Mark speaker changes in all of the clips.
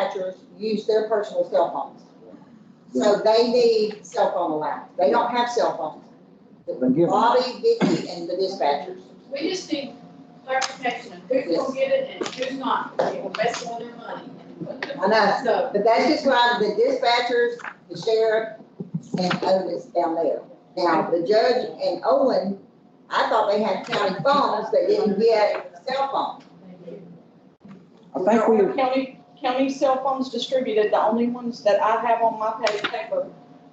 Speaker 1: managers use their personal cell phones. So they need cell phone allowance. They don't have cell phones.
Speaker 2: Then give them.
Speaker 1: Bobby, Vicky, and the dispatchers.
Speaker 3: We just need clarification of who's gonna get it and who's not, they will best on their money.
Speaker 1: I know.
Speaker 3: So,
Speaker 1: But that's just why the dispatchers, the sheriff, and Otis down there. Now, the judge and Owen, I thought they had county phones, they didn't get cell phones.
Speaker 2: I think we,
Speaker 4: Are County, county cell phones distributed, the only ones that I have on my pay paper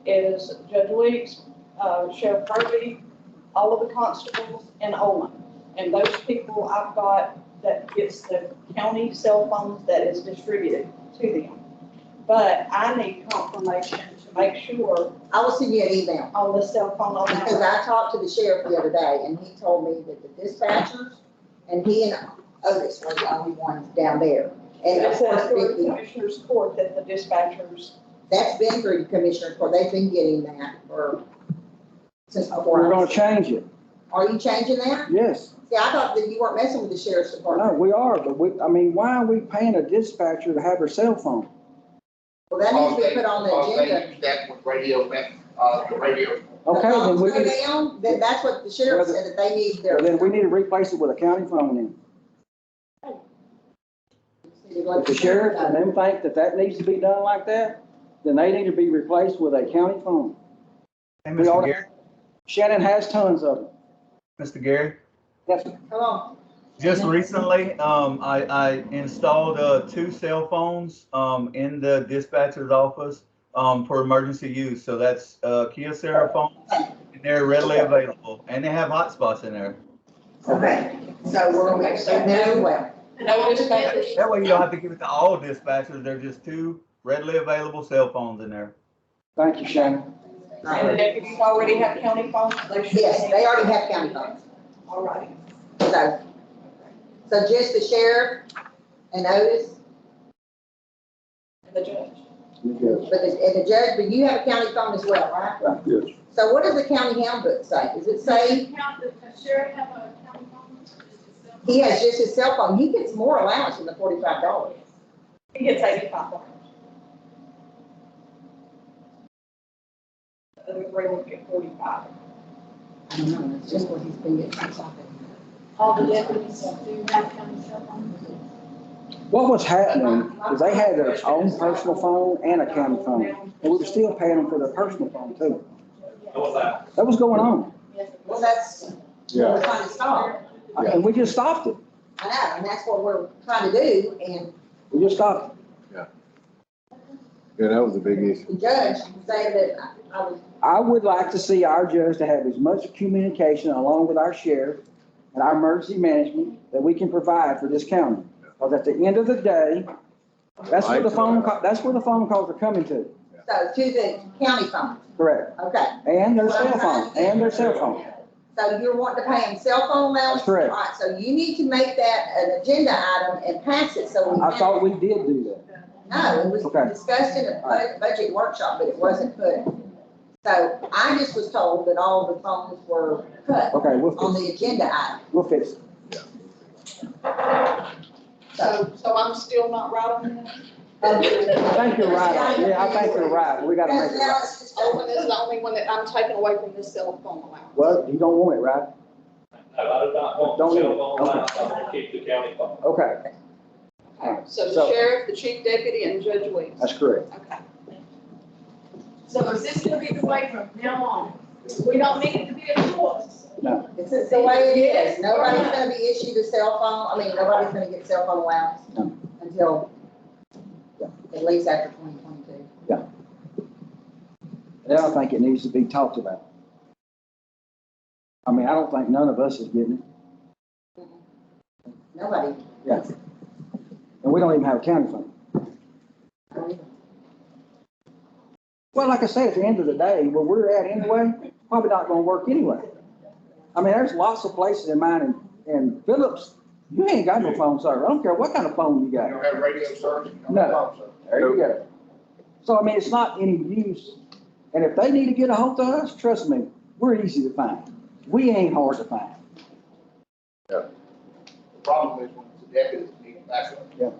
Speaker 4: is Judge Weeks, uh, Sheriff Kirby, all of the constables, and Olin. And those people I've got that gets the county cell phones that is distributed to them. But I need confirmation to make sure
Speaker 1: I will send you an email,
Speaker 4: on the cell phone on
Speaker 1: because
Speaker 4: that.
Speaker 1: I talked to the sheriff the other day, and he told me that the dispatchers, and he and Otis were the only ones down there. And
Speaker 4: It
Speaker 1: of course,
Speaker 4: says through the
Speaker 1: Vicky,
Speaker 4: Commissioner's Court that the dispatchers,
Speaker 1: that's been through the commissioner, court. they've been getting that for, since before.
Speaker 2: we're
Speaker 1: I
Speaker 2: gonna
Speaker 1: was-
Speaker 2: change it,
Speaker 1: Are you changing that?
Speaker 2: yes.
Speaker 1: See, I thought that you weren't messing with the sheriff's department.
Speaker 2: No, we are, but we, I mean, why are we paying a dispatcher to have her cell phone?
Speaker 1: Well, that needs to be put on the
Speaker 5: Because
Speaker 1: agenda.
Speaker 5: they use that with radio, uh, the radio.
Speaker 2: Okay, then we
Speaker 1: The
Speaker 2: can,
Speaker 1: phones go down, then that's what the sheriff said, that they need their.
Speaker 2: well, then we need to replace it with a county phone then. If the sheriff and them think that that needs to be done like that, then they need to be replaced with a county phone.
Speaker 6: Hey,
Speaker 2: We ought
Speaker 6: Mr.
Speaker 2: to-
Speaker 6: Gary,
Speaker 2: Shannon has tons of them.
Speaker 6: Mr. Gary,
Speaker 2: Yes, sir.
Speaker 1: Come on,
Speaker 6: just recently, um, I, I installed, uh, two cell phones, um, in the dispatcher's office, um, for emergency use. So that's, uh, Kyocera phones, and they're readily available, and they have hotspots in there.
Speaker 1: okay, so we're, we understand that as well.
Speaker 3: and I would just make it-
Speaker 6: That way you don't have to give it to all dispatchers, they're just two readily available cell phones in there.
Speaker 2: thank you, Shannon.
Speaker 4: and if you already have county phones, they should.
Speaker 1: Yes, they already have county phones,
Speaker 4: All right.
Speaker 1: so, so just the sheriff and Otis,
Speaker 4: the judge.
Speaker 1: but the, and the judge, but you have a county phone as well, right?
Speaker 2: Yes.
Speaker 1: So what does the county handbook say? Does it say
Speaker 3: Does the count- does the sheriff have a county phone?
Speaker 1: he has just his cell phone? He gets more allowance than the forty-five dollars.
Speaker 4: He gets eighty-five dollars. The other three will get forty-five.
Speaker 1: I don't know, that's just what he's been getting from something.
Speaker 3: All the deputies do have county cell phones.
Speaker 2: What was happening is they had their own personal phone and a county phone, and we were still paying them for their personal phone too. That was going on,
Speaker 1: Well, that's what we're trying to stop.
Speaker 2: and we just stopped it.
Speaker 1: I know, and that's what we're trying to do, and
Speaker 2: We just stopped it.
Speaker 7: Yeah, that was a big issue.
Speaker 1: the judge said that I- I was,
Speaker 2: I would like to see our judge to have as much communication along with our sheriff and our emergency management that we can provide for this county. Because at the end of the day, that's where the phone, ca- that's where the phone calls are coming to,
Speaker 1: so to the county phone,
Speaker 2: correct?
Speaker 1: okay.
Speaker 2: And their cell phone, and their cell phone.
Speaker 1: So you're wanting to pay him cell phone allowance?
Speaker 2: That's correct.
Speaker 1: All right, so you need to make that an agenda item and pass it so we.
Speaker 2: I
Speaker 1: can-
Speaker 2: thought we did do
Speaker 1: No, it was
Speaker 2: Okay.
Speaker 1: discussed in a bu- budget workshop, but it wasn't put. So I just was told that all the phones were
Speaker 2: that.
Speaker 1: cut
Speaker 2: Okay, we'll
Speaker 1: on
Speaker 2: fix,
Speaker 1: the agenda item,
Speaker 2: we'll fix. it.
Speaker 1: so.
Speaker 4: So, so I'm still not right on that?
Speaker 2: I think you're right. Yeah, I think you're right. We gotta make it right.
Speaker 4: Owen is the only one that I'm taking away from this cell phone allowance.
Speaker 2: Well, you don't want it, right?
Speaker 8: No, I do not want
Speaker 2: Don't
Speaker 8: the
Speaker 2: need
Speaker 8: cell
Speaker 2: it.
Speaker 8: phone lines, I want to keep the county phone.
Speaker 2: Okay,
Speaker 4: Okay, So
Speaker 2: So-
Speaker 4: the sheriff, the chief deputy, and Judge Weeks.
Speaker 2: that's correct.
Speaker 4: Okay.
Speaker 3: So is this gonna be the way from now on? We don't need it to be a choice.
Speaker 1: This is the way it is. Nobody's gonna be issued a cell phone, I mean, nobody's gonna get cell phone
Speaker 2: No.
Speaker 1: allowance until
Speaker 2: Yeah.
Speaker 1: at least after twenty twenty-two.
Speaker 2: And I don't think it needs to be talked about. I mean, I don't think none of us is getting it.
Speaker 1: Nobody.
Speaker 2: Yeah. And we don't even have a county phone. Well, like I say, at the end of the day, where we're at anyway, probably not gonna work anyway. I mean, there's lots of places in mine in, in Phillips, you ain't got no phone service. I don't care what kind of phone you
Speaker 5: You
Speaker 2: got.
Speaker 5: don't have radio service. you don't
Speaker 2: No.
Speaker 5: have phone service.
Speaker 2: There you go. So I mean, it's not any use. And if they need to get a hold of us, trust me, we're easy to find. We ain't hard to find.
Speaker 5: The problem is when the deputies need backup.